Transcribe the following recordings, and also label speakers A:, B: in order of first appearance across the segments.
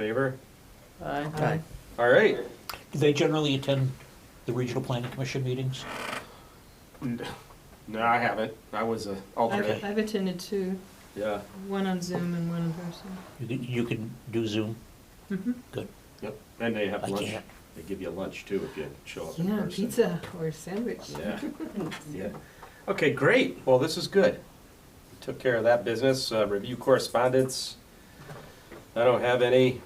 A: Favor?
B: Aye.
A: All right.
C: Do they generally attend the regional planning commission meetings?
A: No, I haven't. I was a alternate.
B: Okay.
D: I've, I've attended two,
A: Yeah.
D: one on Zoom and one in person.
C: You can, you can do Zoom?
D: Mhm.
C: Good,
A: Yep. And they have
C: I
A: lunch.
C: can't.
A: They give you lunch too if you show up in
D: Yeah,
A: person.
D: pizza or sandwich.
A: Yeah. yeah. Okay, great. Well, this is good. Took care of that business. Uh, review correspondence. I don't have any.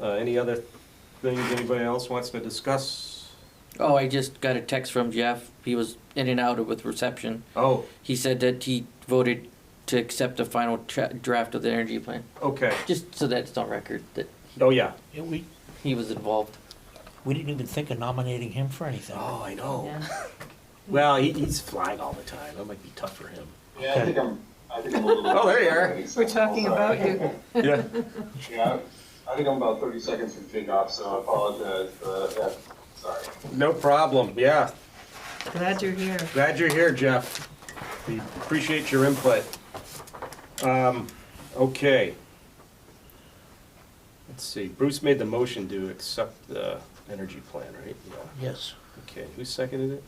A: Uh, any other things anybody else wants to discuss?
B: Oh, I just got a text from Jeff. He was in and out with reception.
A: Oh,
B: He said that he voted to accept the final tra- draft of the energy plan,
A: okay.
B: just so that it's on record that
A: Oh yeah.
C: Yeah, we,
B: he was involved.
C: we didn't even think of nominating him for anything.
A: Oh, I know.
D: Yeah.
A: Well, he, he's flying all the time. That might be tough for him.
E: Yeah, I think I'm, I think I'm a little.
A: Oh, there you are.
D: We're talking about you.
A: Yeah.
E: Yeah, I think I'm about thirty seconds from kickoff, so I apologize, but, yeah, sorry.
A: No problem. Yeah.
D: Glad you're here.
A: Glad you're here, Jeff. We appreciate your input. Um, okay. Let's see, Bruce made the motion to accept the energy plan, right? Yeah.
C: Yes.
A: Okay, who seconded it?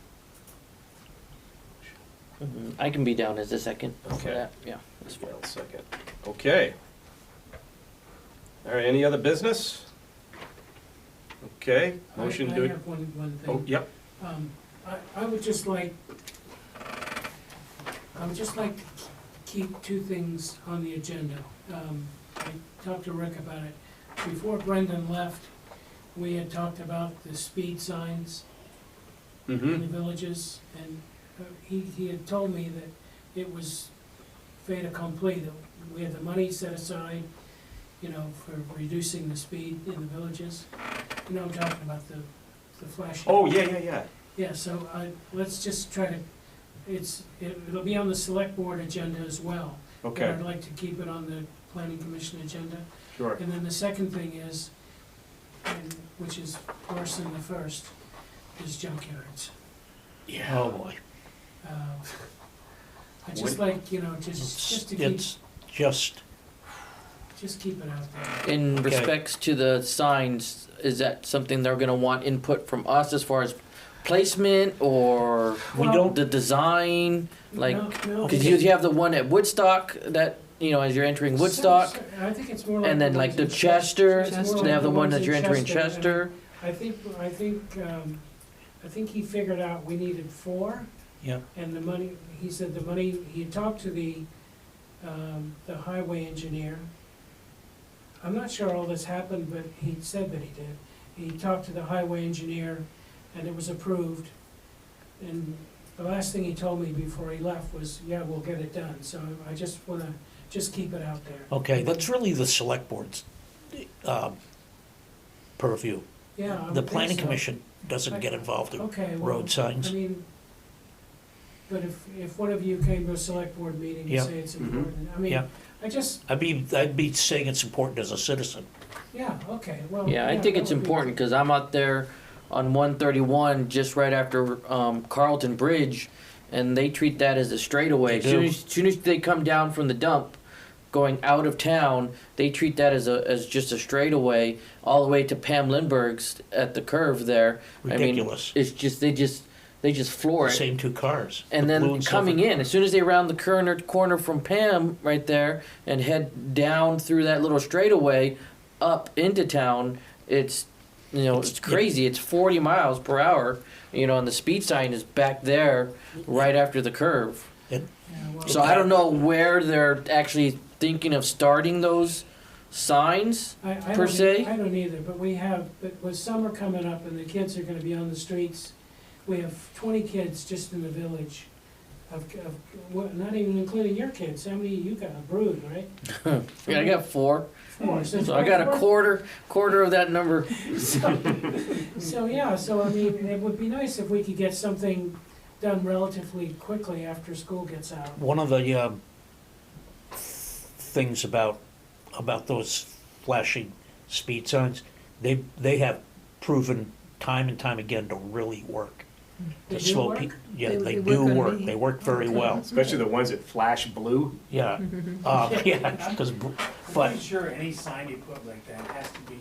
B: Mhm. I can be down as a second. for
A: Okay.
B: that. Yeah, that's fine.
A: Well, second. Okay. All right, any other business? Okay,
F: I-
A: motion
F: I
A: to,
F: have one, one thing.
A: oh, yep,
F: Um, I, I would just like, I would just like to keep two things on the agenda. Um, I talked to Rick about it. Before Brendan left, we had talked about the speed signs in
A: mm-hmm,
F: the villages, and uh, he, he had told me that it was fait accompli, that we had the money set aside, you know, for reducing the speed in the villages. You know, I'm talking about the, the flashing.
A: oh, yeah, yeah, yeah,
F: Yeah, so I, let's just try to, it's, it- it'll be on the select board agenda as well. but
A: okay,
F: I'd like to keep it on the planning commission agenda.
A: sure,
F: And then the second thing is, and, which is worse than the first, is junkyards.
A: yeah.
C: Oh, boy.
F: Uh, I just
A: What-
F: like, you know, just,
C: It's,
F: just to keep,
C: it's just,
F: just keep it out there.
B: In
C: Okay.
B: respects to the signs, is that something they're gonna want input from us as far as placement or
C: we
F: Well-
C: don't,
B: the design? Like,
F: No, no,
B: Because you you have the one at Woodstock that, you know, as you're entering
F: so-
B: Woodstock,
F: so- I think it's more like.
B: and then like
F: ones
B: the
F: in Chester.
B: Chester,
D: Chester.
B: so they have the one that you're entering Chester.
F: I think, I think, um, I think he figured out we needed four,
C: yeah,
F: and the money, he said the money, he talked to the, um, the highway engineer. I'm not sure all this happened, but he said that he did. He talked to the highway engineer, and it was approved. And the last thing he told me before he left was, yeah, we'll get it done, so I just wanna, just keep it out there.
C: okay, that's really the select board's, um, purview.
F: Yeah, I would
C: The
F: think
C: planning
F: so.
C: commission doesn't get involved in
F: Okay, well.
C: road
F: I
C: signs.
F: mean, but if, if one of you came to a select board meeting
C: Yeah.
F: and say it's
A: Mhm.
F: important, I mean,
C: Yeah.
F: I just,
C: I'd be, I'd be saying it's important as a citizen.
F: yeah, okay, well.
B: Yeah, I think
F: that
B: it's
F: would be-
B: important, because I'm out there on one thirty-one, just right after, um, Carlton Bridge, and they treat that as a straightaway.
C: They
B: Soon
C: do.
B: as, soon as they come down from the dump, going out of town, they treat that as a, as just a straightaway, all the way to Pam Lindbergh's at the curve there. I mean,
C: Ridiculous.
B: It's just, they just, they just floor it.
C: Same two cars.
B: And
C: the blue
B: then
C: silver.
B: coming in, as soon as they round the corner, corner from Pam right there and head down through that little straightaway up into town, it's you know
C: It's-
B: it's, crazy. It's forty miles per hour, you know, and the speed sign is back there right after the curve.
F: Yeah, well,
B: So I don't know where they're actually thinking of starting those signs.
F: I- I don't
B: per
F: e-
B: se?
F: I don't either, but we have, but with summer coming up and the kids are gonna be on the streets, we have twenty kids just in the village of, of, well, not even including your kids, how many, you got a brood, right?
B: Yeah, I got four,
F: Four, so.
B: so I got a
F: four-
B: quarter quarter of that number.
F: So, yeah, so I mean, it would be nice if we could get something done relatively quickly after school gets out.
C: One of the um, things about about those flashing speed signs, they they have proven time and time again to really work.
F: They
C: The
F: do
C: slow
F: work?
C: peak, yeah,
D: They-
C: they
D: they
C: do
D: work on
C: work,
D: me.
C: they work very well,
A: especially the ones that flash blue.
C: yeah. Uh, yeah, 'cause br-
G: I'm
C: but
G: pretty sure any sign you put like that has to be